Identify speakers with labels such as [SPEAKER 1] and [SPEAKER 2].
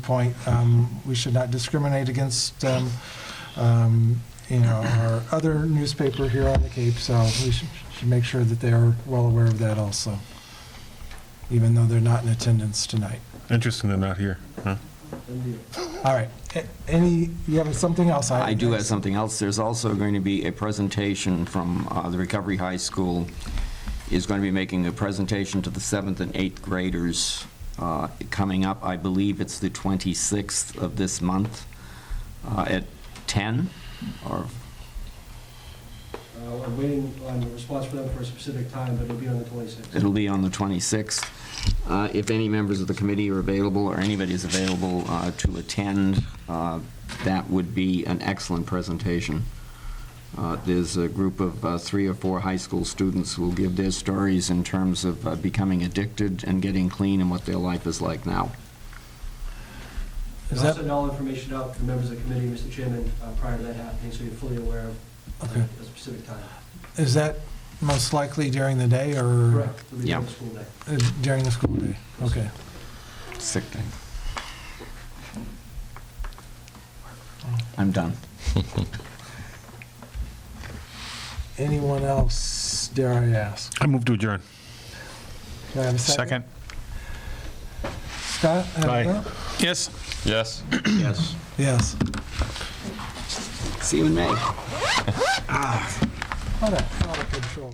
[SPEAKER 1] point, um, we should not discriminate against, um, um, you know, our other newspaper here on the Cape, so we should should make sure that they are well aware of that also, even though they're not in attendance tonight.
[SPEAKER 2] Interesting they're not here, huh?
[SPEAKER 1] All right, A- any, you have something else?
[SPEAKER 3] I do have something else. There's also going to be a presentation from uh, the Recovery High School is going to be making a presentation to the seventh and eighth graders uh, coming up. I believe it's the 26th of this month uh, at 10 or,
[SPEAKER 4] Uh, We're waiting on a response from them for a specific time, but it'll be on the 26th.
[SPEAKER 3] it'll be on the 26th. Uh, If any members of the committee are available or anybody is available uh, to attend, uh, that would be an excellent presentation. Uh, There's a group of uh, three or four high school students who will give their stories in terms of uh, becoming addicted and getting clean and what their life is like now.
[SPEAKER 1] Is
[SPEAKER 4] I'll
[SPEAKER 1] that-
[SPEAKER 4] send all information out to the members of the committee, Mr. Chairman, uh, prior to that happening, so you're fully aware of uh,
[SPEAKER 1] Okay.
[SPEAKER 4] a specific time.
[SPEAKER 1] Is that most likely during the day or?
[SPEAKER 4] Correct. It'll be during
[SPEAKER 3] Yeah.
[SPEAKER 4] the school day.
[SPEAKER 1] Uh, During the school day, okay.
[SPEAKER 3] Sick thing. I'm done.
[SPEAKER 1] Anyone else, dare I ask?
[SPEAKER 2] I move to adjourn.
[SPEAKER 1] Do I have a second?
[SPEAKER 5] Second?
[SPEAKER 1] Scott? have a
[SPEAKER 2] Aye.
[SPEAKER 1] vote?
[SPEAKER 5] Yes.
[SPEAKER 2] Yes.
[SPEAKER 3] Yes.
[SPEAKER 1] Yes.
[SPEAKER 3] See you in May.
[SPEAKER 1] What a, what a control.